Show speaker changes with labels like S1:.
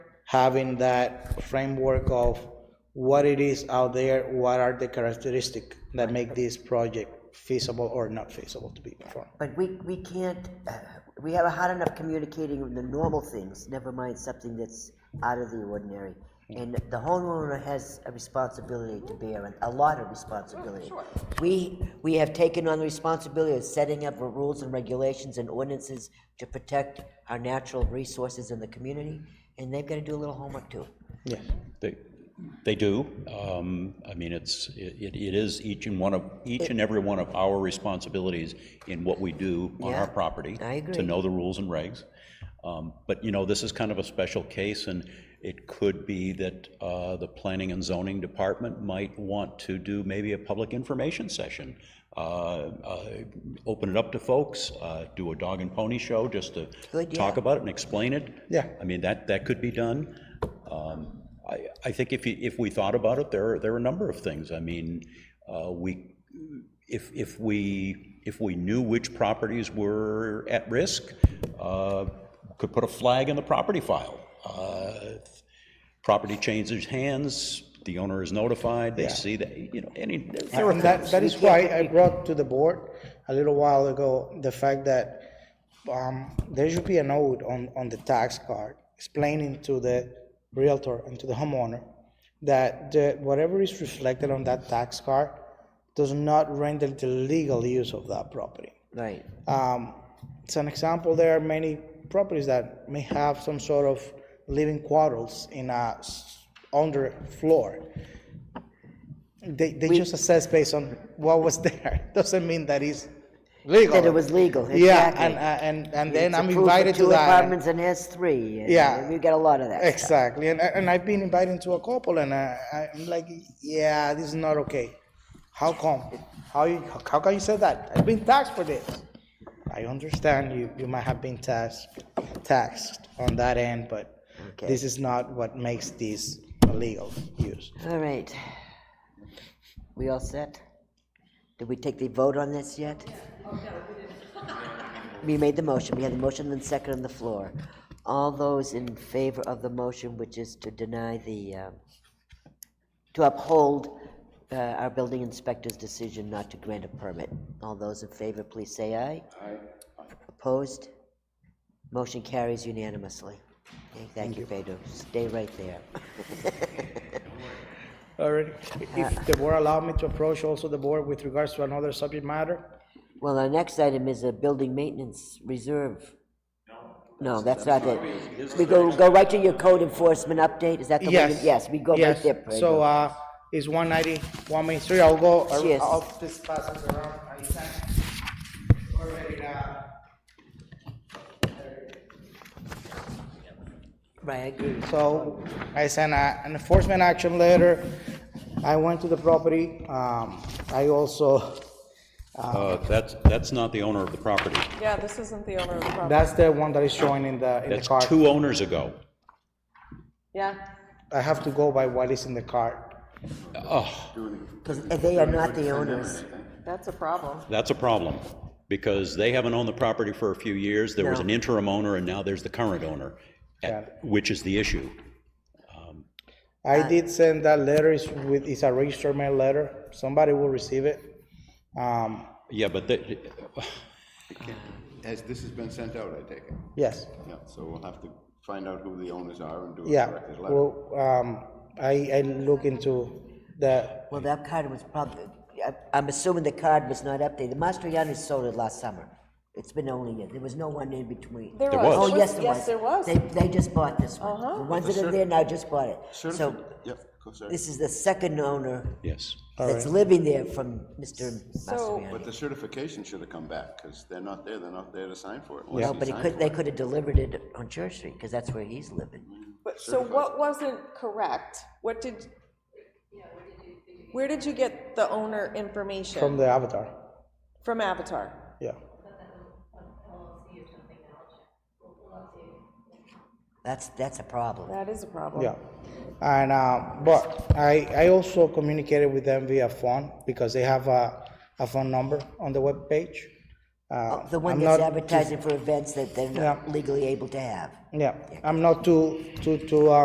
S1: having that framework of what it is out there, what are the characteristics that make this project feasible or not feasible to be performed.
S2: But we, we can't, uh, we have a hard enough communicating with the normal things, never mind something that's out of the ordinary.
S1: Mm.
S2: And the homeowner has a responsibility to bear, and a lot of responsibility. We, we have taken on the responsibility of setting up rules and regulations and ordinances to protect our natural resources in the community, and they've got to do a little homework too.
S1: Yes.
S3: They, they do. Um, I mean, it's, it, it is each and one of, each and every one of our responsibilities in what we do on
S2: Yeah,
S3: our property.
S2: I agree.
S3: To know the rules and regs. Um, But, you know, this is kind of a special case, and it could be that uh, the Planning and Zoning Department might want to do maybe a public information session. uh, uh, Open it up to folks, uh, do a dog and pony show just to
S2: Good,
S3: talk
S2: yeah.
S3: about it and explain it.
S1: Yeah.
S3: I mean, that, that could be done. Um, I, I think if, you- if we thought about it, there are, there are a number of things. I mean, uh, we, if, if we, if we knew which properties were at risk, uh, could put a flag in the property file. Uh, Property changes hands, the owner is notified, they see that, you know, any, there are
S1: And that, that is why I brought to the board a little while ago, the fact that um, there should be a note on, on the tax card explaining to the realtor and to the homeowner that the, whatever is reflected on that tax card does not render the legal use of that property.
S2: Right.
S1: Um, As an example, there are many properties that may have some sort of living quarters in a s- underfloor. They, they just assess based on what was there, doesn't mean that it's legal.
S2: That it was legal,
S1: Yeah,
S2: exactly.
S1: and, uh, and, and then
S2: It's
S1: I'm
S2: approved for
S1: invited to
S2: Two
S1: that. and-
S2: apartments and has three. and
S1: Yeah.
S2: We've got a lot of that stuff.
S1: Exactly, and, and I've been invited to a couple, and I, I'm like, yeah, this is not okay. How come? How you, how can you say that? I've been taxed for this. I understand you, you might have been taxed, taxed on that end, but
S2: Okay.
S1: this is not what makes this illegal use.
S2: All right. We all set? Did we take the vote on this yet? We made the motion, we had the motion and second on the floor. All those in favor of the motion, which is to deny the, um, to uphold uh, our building inspector's decision not to grant a permit. All those in favor, please say aye. Aye. Opposed? Motion carries unanimously. Okay, Thank you, Pedro. Stay right there.
S1: All right, if the board allow me to approach also the board with regards to another subject matter?
S2: Well, our next item is a building maintenance reserve. No. that's not it. We go, go right to your code enforcement update, is that the one? you-
S1: Yes.
S2: Yes, we go right
S1: yes.
S2: there.
S1: So,
S2: Prego.
S1: uh, it's one ninety, one Main Street, I'll go, ar-
S2: Yes.
S1: I'll just pass it around, I sent already, uh,
S2: Right, I agree.
S1: So I sent a- an enforcement action letter. I went to the property. Um, I also,
S3: Uh, That's, that's not the owner of the property.
S4: Yeah, this isn't the owner of the property.
S1: that's the one that is showing in the, in the
S3: That's
S1: card.
S3: two owners ago.
S4: Yeah,
S1: I have to go by what is in the card.
S2: Because they are not the owners.
S4: that's a problem.
S3: That's a problem, because they haven't owned the property for a few years, there was
S2: No.
S3: an interim owner, and now there's the current owner,
S1: Got
S3: which is the issue.
S2: Uh.
S1: I did send that letter It's with, it's a registered mail letter. Somebody will receive it. Um,
S3: Yeah, but the-
S5: As this has been sent out, I take it?
S1: yes,
S5: Yeah, so we'll have to find out who the owners are and do a
S1: yeah.
S5: corrected letter.
S1: Well, um, I, I look into the,
S2: Well, that card was probably, I- I'm assuming the card was not updated. Mastriani sold it last summer. It's been only, a- there was no one in between.
S4: There
S3: There
S4: was.
S3: was.
S2: Oh, yes, there was.
S4: Yes, there was.
S2: They, they just bought this one. The ones that are there now just bought it. So
S5: Certifi- Yep, go sorry.
S2: this is the second owner
S3: yes,
S2: that's living there from Mr.
S4: So-
S2: Mastriani.
S5: But the certification should have come back, because they're not there, they're not there to sign for it.
S2: No, but it could, they could have delivered it on Church Street, because that's where he's living.
S4: But, so what wasn't correct? What did? Where did you get the owner information?
S1: from the avatar.
S4: From Avatar?
S1: Yeah.
S2: That's, that's a problem.
S4: That is a problem.
S1: Yeah, and, uh, but I, I also communicated with them via phone because they have a, a phone number on the webpage. Uh,
S2: The one
S1: I'm
S2: that's
S1: not-
S2: advertising for events that they're not legally able to have.
S1: Yeah, I'm not too, too, too, uh,